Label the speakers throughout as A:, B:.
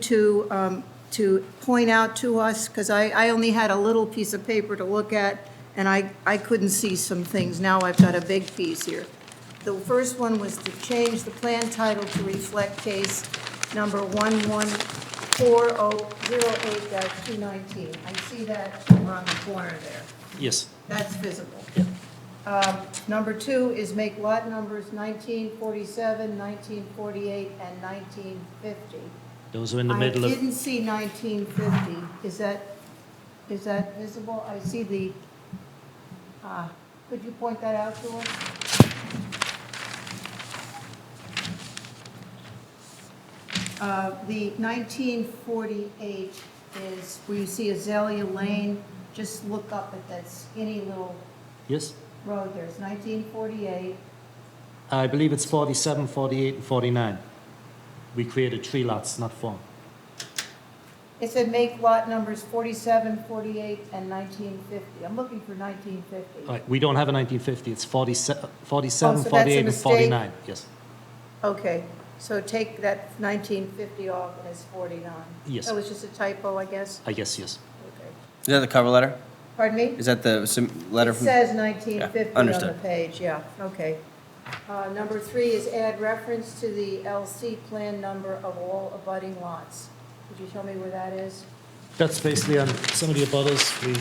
A: to, um, to point out to us, because I, I only had a little piece of paper to look at, and I, I couldn't see some things. Now I've got a big piece here. The first one was to change the plan title to reflect case number 11408-219. I see that around the corner there.
B: Yes,
A: That's visible. Um, Number two is make lot numbers 1947, 1948, and 1950.
B: those are in the middle
A: I
B: of,
A: didn't see 1950. Is that, is that visible? I see the, ah, could you point that out to us? Uh, The 1948 is where you see Azalea Lane. Just look up at that skinny little
B: yes?
A: road there. It's 1948.
B: I believe it's 47, 48, and 49. We created three lots, not four.
A: It said make lot numbers 47, 48, and 1950. I'm looking for 1950.
B: All right, Uh, we don't have a 1950, it's 47, 47,
A: Oh, that's a
B: 48, and
A: mistake?
B: 49. Yes,
A: Okay, so take that 1950 off and it's 49?
B: Yes.
A: That was just a typo, I guess?
B: I guess, yes.
A: Okay.
C: Is that the cover letter?
A: Pardon me?
C: Is that the sim- letter
A: It
C: from?
A: says 1950 on the
C: understood.
A: page, yeah, okay. Uh, Number three is add reference to the LC plan number of all abutting lots. Could you show me where that is?
B: That's basically on some of the abutters, we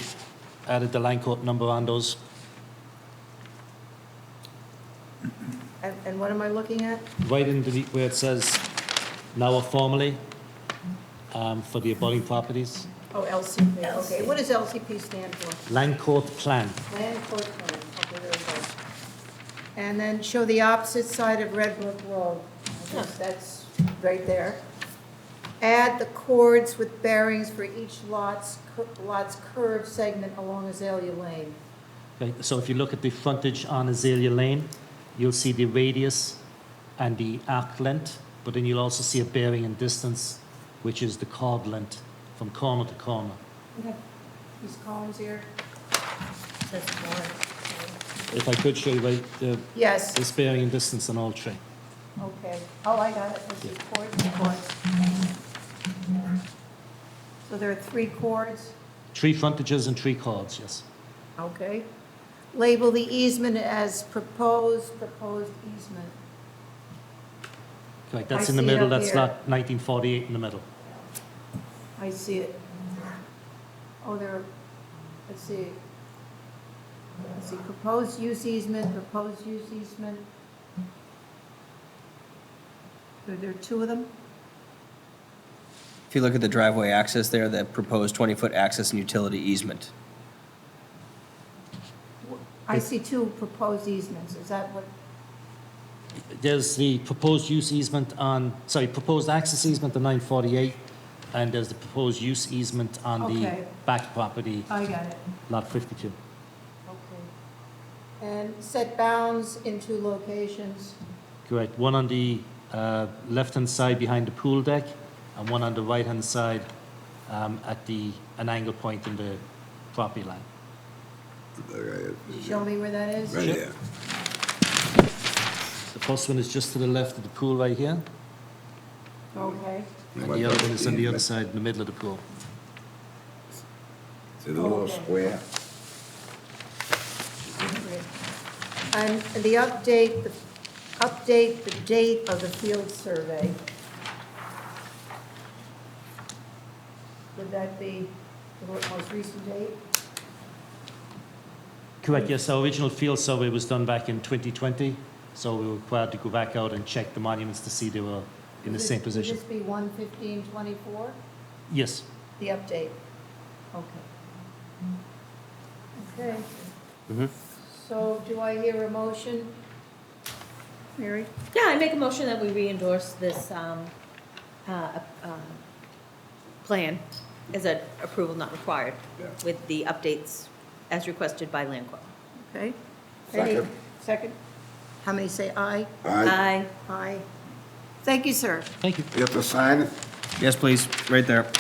B: added the line court number on those.
A: And and what am I looking at?
B: Right in the, where it says now or formerly, um, for the abutting properties,
A: Oh, LC plan, okay. What does LCP stand for?
B: line court plan.
A: Land court plan, okay, there we go. And then show the opposite side of Red Brook Road. I guess that's right there. Add the chords with bearings for each lot's, cur- lot's curved segment along Azalea Lane.
B: Okay, so if you look at the frontage on Azalea Lane, you'll see the radius and the arc length, but then you'll also see a bearing and distance, which is the chord length from corner to corner.
A: Okay, These columns here?
B: If I could show you right, the,
A: Yes,
B: this bearing and distance on all three.
A: okay. Oh, I got it, this is chords, chords. So there are three chords?
B: Three frontages and three chords, yes.
A: Okay. Label the easement as proposed, proposed easement.
B: Correct,
A: I
B: that's in the
A: see it
B: middle,
A: up
B: that's
A: here.
B: lot nineteen forty-eight in the middle.
A: I see it. Oh, there, let's see. Let's see, proposed use easement, proposed use easement. Are there two of them?
C: If you look at the driveway access there, that proposed 20-foot access and utility easement.
A: I see two proposed easements, is that what,
B: There's the proposed use easement on, sorry, proposed access easement on nine forty-eight, and there's the proposed use easement on the
A: Okay. Uh,
B: back property,
A: I got it,
B: lot fifty-two.
A: okay. And set bounds in two locations,
B: Correct. One on the uh, left-hand side behind the pool deck, and one on the right-hand side um, at the, an angle point in the property line.
A: Could you show me where that is?
D: Right
B: Sure.
D: there.
B: The first one is just to the left of the pool right here,
A: Okay,
B: and the other one is on the other side, in the middle of the pool.
D: See the little
A: Okay.
D: square?
A: great. And the update, the update the date of the field survey. Would that be the most recent date?
B: Correct, yes, our original field survey was done back in 2020, so we were required to go back out and check the monuments to see they were in the
A: Would
B: same
A: this-
B: position.
A: Would this be one fifteen twenty-four,
B: Yes,
A: the update? Okay. Okay.
B: Mm-hmm.
A: So do I hear a motion? Mary?
E: Yeah, I make a motion that we re-endorse this um, uh, um, plan as an approval not required
D: Yeah.
E: with the updates as requested by Land Corp.
A: Okay.
D: Second.
A: Any- Second? How many say aye?
D: Aye.
E: Aye.
A: Aye. Thank you, sir.
B: thank you.
D: You have to sign it?
C: Yes, please, right there.